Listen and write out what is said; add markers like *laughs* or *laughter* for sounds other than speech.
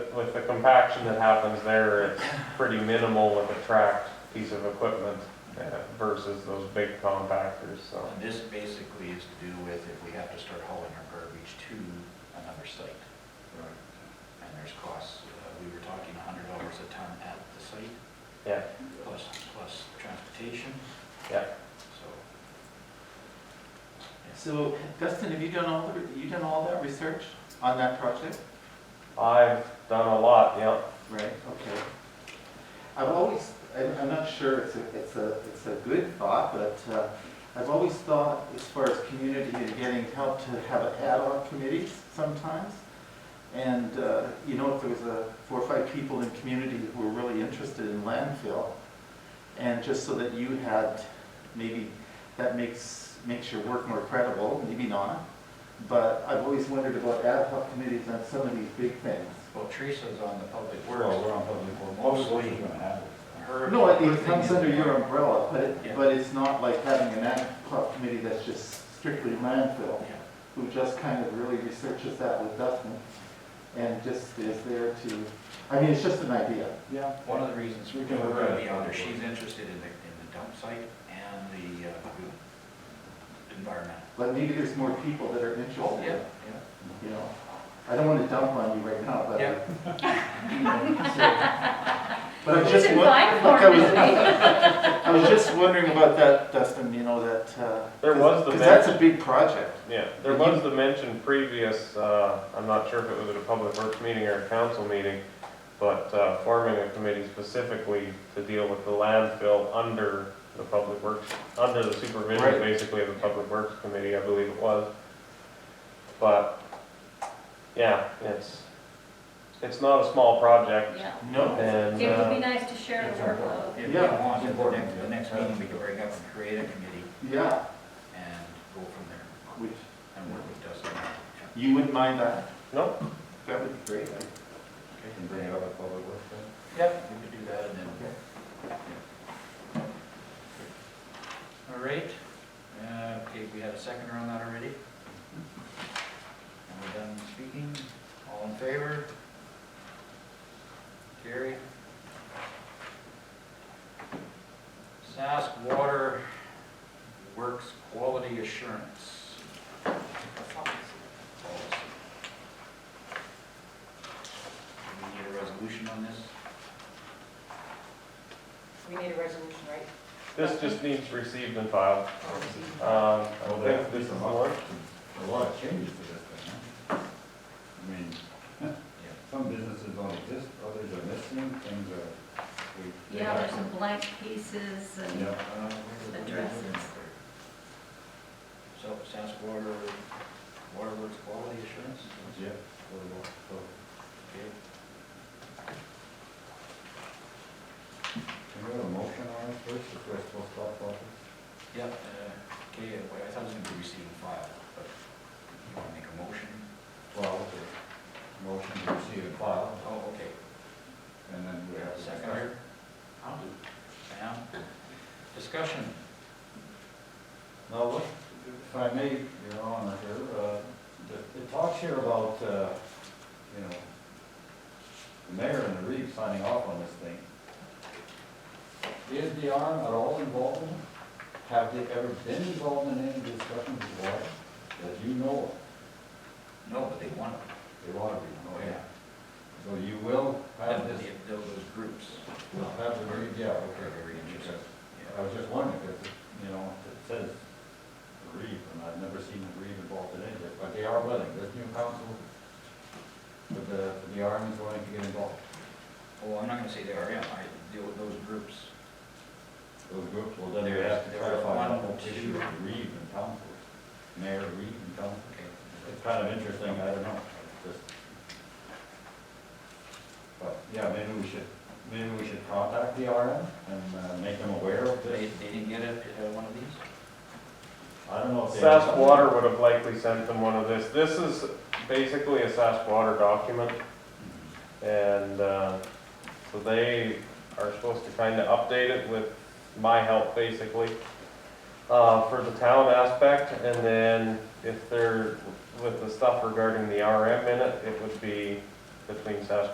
with the compaction that happens there, it's pretty minimal with a tracked piece of equipment uh, versus those big compactors, so. And this basically is to do with if we have to start hauling our garbage to another site. And there's costs, uh, we were talking a hundred dollars a ton at the site, Yeah, plus, plus transportation, yeah. so. So Dustin, have you done all, the you done all that research on that project? I've done a lot, yeah. Right, okay. I've always, I'm, I'm not sure it's a, it's a, it's a good thought, but, uh, I've always thought as far as community and getting help to have a ad hoc committees sometimes. And, uh, you know, if there was a four or five people in community who were really interested in landfill, and just so that you had, maybe that makes, makes your work more credible, maybe not. But I've always wondered about ad hoc committees on some of these big things. Well, Teresa's on the public works. Well, we're on public works. Mostly her. No, it- her it thing comes is- under your umbrella, but Yeah. it, but it's not like having an ad hoc committee that's just strictly landfill, Yeah. who just kind of really researches that with Dustin, and just is there to, I mean, it's just an idea. Yeah. One of the reasons we We can can her look at to it. be on there, she's interested in the, in the dump site and the uh, environmental. But maybe there's more people that are Oh, yeah, interested, yeah. you know? I don't want to dump on you right now, but. *laughs* Yeah. But I'm It's just, in won- *laughs* fine like, I form, was, isn't it? *laughs* I was just wondering about that, Dustin, you know, that, uh. There was the Because that's a big project. Yeah, there was the mention previous, uh, I'm not sure if it was at a public works meeting or a council meeting, but uh, forming a committee specifically to deal with the landfill under the public works, under the supervision Right. basically of the public works committee, I believe it was. But, yeah, it's, it's not a small project Yeah. No. and, It would be uh, nice to share the workload. If we Yeah. want, at the next, the next meeting, we can break up and create a committee Yeah, and go from there which, and work with Dustin. Yeah. you wouldn't mind that? no, That would be great. Can bring it up at public works then? Yep, we could do that and then. All right, uh, okay, we had a second around that already. And we're done speaking, all in favor? Carry. Sask Water Works Quality Assurance. Policy. Do we need a resolution on this? We need a resolution, right? this just needs received and filed. Um, I think this is the one. A lot of changes to this thing, huh? I mean, some businesses don't exist, others are missing, things are. we- they Yeah, there's happen. some blank pieces and, Yeah. Uh, where- Addresses. So Sask Water, Water Works Quality Assurance? Yeah. for what- for- Okay. Can we have a motion on it first, if we're supposed to talk about this? Yep, uh, okay, well, I thought it was gonna be received and filed, but you wanna make a motion? Well, okay. Motion to receive and file, Oh, okay, and then we have. a second here, I'll do Sam, discussion, Now, what, if I may, Your Honor, here, uh, the- it talks here about, uh, you know, the mayor and the Reeve signing off on this thing. Is the arm at all involved in it? Have they ever been involved in any discussions with water that you know of? no, but they want it, They want to be, oh, yeah, So you will have Those- this, those groups. will have the Reeve, yeah, Are okay. very interested, I was just wondering, because, you know, it says Reeve, and I've never seen a Reeve involved in any of it, but they are willing, this new council, with the, with the army's willing to get involved. well, I'm not gonna say they are, yeah, I deal with those groups, Those groups will then There is- have to there are clarify the one, whole issue two. of Reeve and council, mayor Reeve and council. okay. It's kind of interesting, I don't know, just. But, yeah, maybe we should, maybe we should contact the RM and uh, make them aware of They, this. they didn't get it, uh, one of these? I don't know if they. SAS Water would have likely sent them one of this. This is basically a SAS Water document. And, uh, so they are supposed to kind of update it with my help, basically, uh, for the town aspect. And then if they're, with the stuff regarding the RM in it, it would be between SAS